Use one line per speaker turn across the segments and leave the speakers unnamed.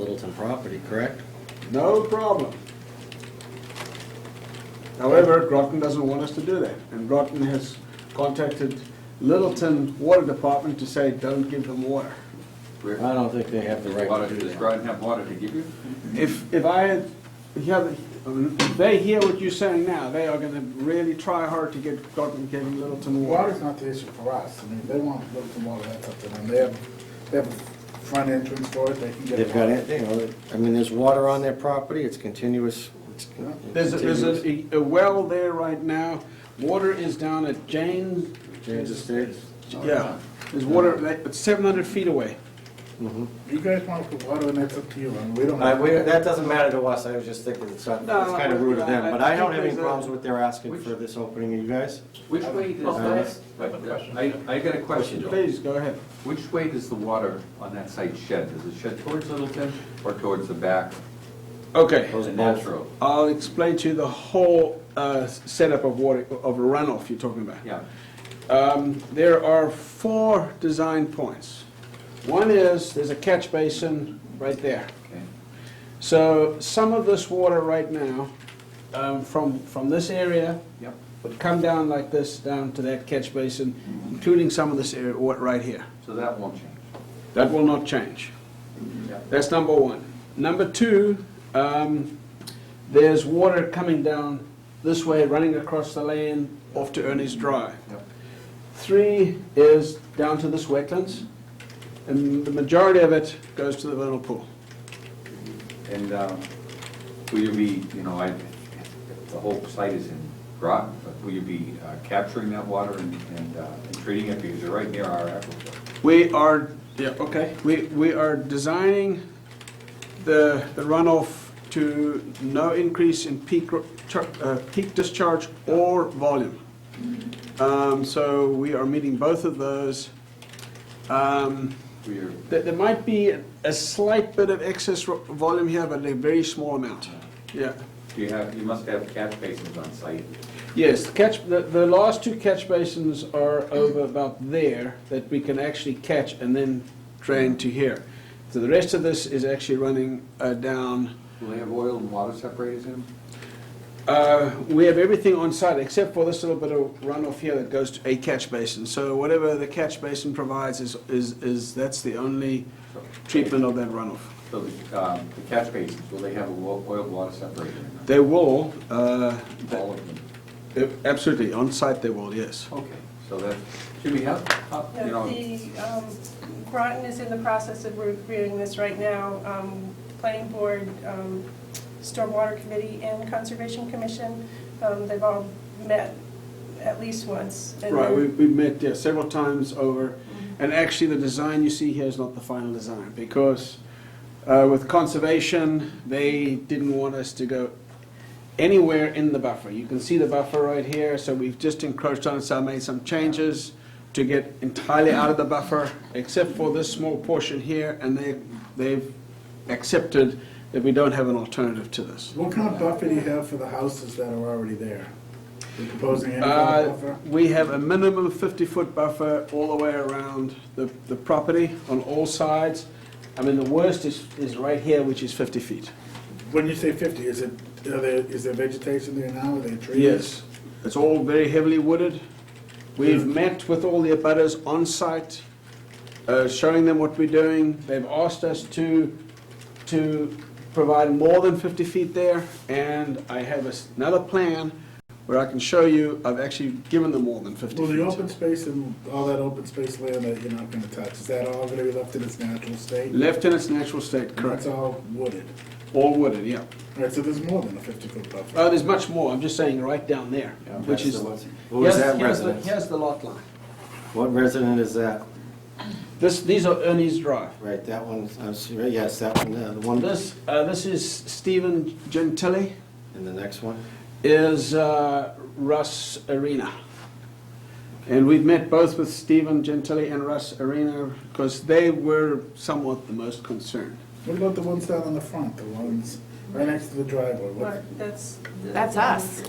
Wilton property, correct?
No problem. However, Groton doesn't want us to do that, and Groton has contacted Littleton Water Department to say, don't give them water.
I don't think they have the right
Water,
to do
does
that.
Groton have water to give you?
If, if I, had- if you have- if they hear what you're saying now, they are gonna really try hard to get Groton giving Littleton water.
Water's not the issue for us. I mean, if they want to look for water, that's up to them. They have, they have a front entrance for it, they can get.
They've got
water.
it, you know, I mean, there's water on their property, it's continuous. it's con-
There's, a- there's
continuous.
a, a well there right now, water is down at Jane.
James Estates.
Yeah, there's water, like, it's seven hundred feet away.
Mhm.
You guys want to put water in, that's up to you, and we don't.
Uh, we- That doesn't matter to us, I was just thinking it's not- it's kind of rude of them, but I don't have any problems with their asking for this opening, you guys?
Which way does
I have
that? I, Uh, I got a question, Joe.
Please, go ahead.
Which way does the water on that site shed? Does it shed towards Littleton or towards the back?
Okay.
Those
The
both.
natural,
I'll explain to you the whole uh, setup of water, of runoff you're talking about.
yeah.
Um, There are four design points. One is, there's a catch basin right there.
okay.
So some of this water right now, um, from, from this area,
Yep.
would come down like this, down to that catch basin, including some of this area wa- right here.
So that won't change.
That will not change.
Yep.
That's number one. Number two, um, there's water coming down this way, running across the land off to Ernie's Drive.
Yep.
Three is down to this wetlands, and the majority of it goes to the vernal pool.
And um, will you be, you know, I, the whole site is in Groton, but will you be uh, capturing that water and, and uh, and treating it because you're right near our aquifer?
We are, yeah, okay, we, we are designing the the runoff to no increase in peak, ro- char- uh, peak discharge or volume. Um, So we are meeting both of those. Um,
Will you-
There, there might be a slight bit of excess ro- volume here, but a very small amount, yeah.
Do you have, you must have catch basins on site.
Yes, the catch, the, the last two catch basins are over about there that we can actually catch and then drain to here. So the rest of this is actually running uh, down.
Will they have oil and water separators in them?
Uh, we have everything on site except for this little bit of runoff here that goes to a catch basin. So whatever the catch basin provides is, is, is, that's the only
So-
treatment of that runoff.
So the um, the catch basins, will they have a wa- oil and water separator in them?
They will, uh,
All of them?
absolutely, on site they will, yes.
Okay, so that, Jimmy, how, how-
Yeah,
you know,
The, um, Groton is in the process of reviewing this right now. Um, Planning Board, um, Stormwater Committee, and Conservation Commission, um, they've all met at least once. and
Right,
they're-
we, we've met, yeah, several times over, and actually, the design you see here is not the final design, because uh, with conservation, they didn't want us to go anywhere in the buffer. You can see the buffer right here, so we've just encroached on it, so I made some changes to get entirely out of the buffer, except for this small portion here, and they, they've accepted that we don't have an alternative to this.
What kind of buffer do you have for the houses that are already there? You proposing any kind of
Uh,
buffer?
We have a minimum 50-foot buffer all the way around the, the property on all sides. I mean, the worst is, is right here, which is 50 feet.
When you say fifty, is it, are there, is there vegetation there now, are there trees?
Yes. It's all very heavily wooded. We've met with all the abutters on site, uh, showing them what we're doing. They've asked us to, to provide more than 50 feet there, and I have a s- another plan where I can show you, I've actually given them more than 50 feet.
Well, the open space and all that open space land that you're not gonna touch, is that all gonna be left in its natural state?
Left in its natural state,
That's
correct.
all wooded.
All wooded, yeah.
All right, so there's more than a fifty-foot buffer.
Oh, there's much more, I'm just saying right down there, which is.
Who is
Here's-
that
here's the-
residence?
Here's the lot line.
What resident is that?
This, these are Ernie's Drive.
Right, that one, I'm sorry, yes, that one, uh, the one,
This, uh, this is Stephen Gentili,
and the next one?
is uh, Russ Arena. And we've met both with Stephen Gentili and Russ Arena because they were somewhat the most concerned.
What about the ones down on the front, the ones right next to the driveway? What,
Right, That's.
That's us.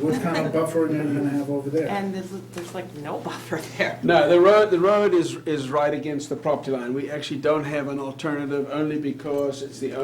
what kind of buffering are you gonna have over there?
And there's, there's like no buffer there.
No, the road, the road is, is right against the property line. We actually don't have an alternative only because it's the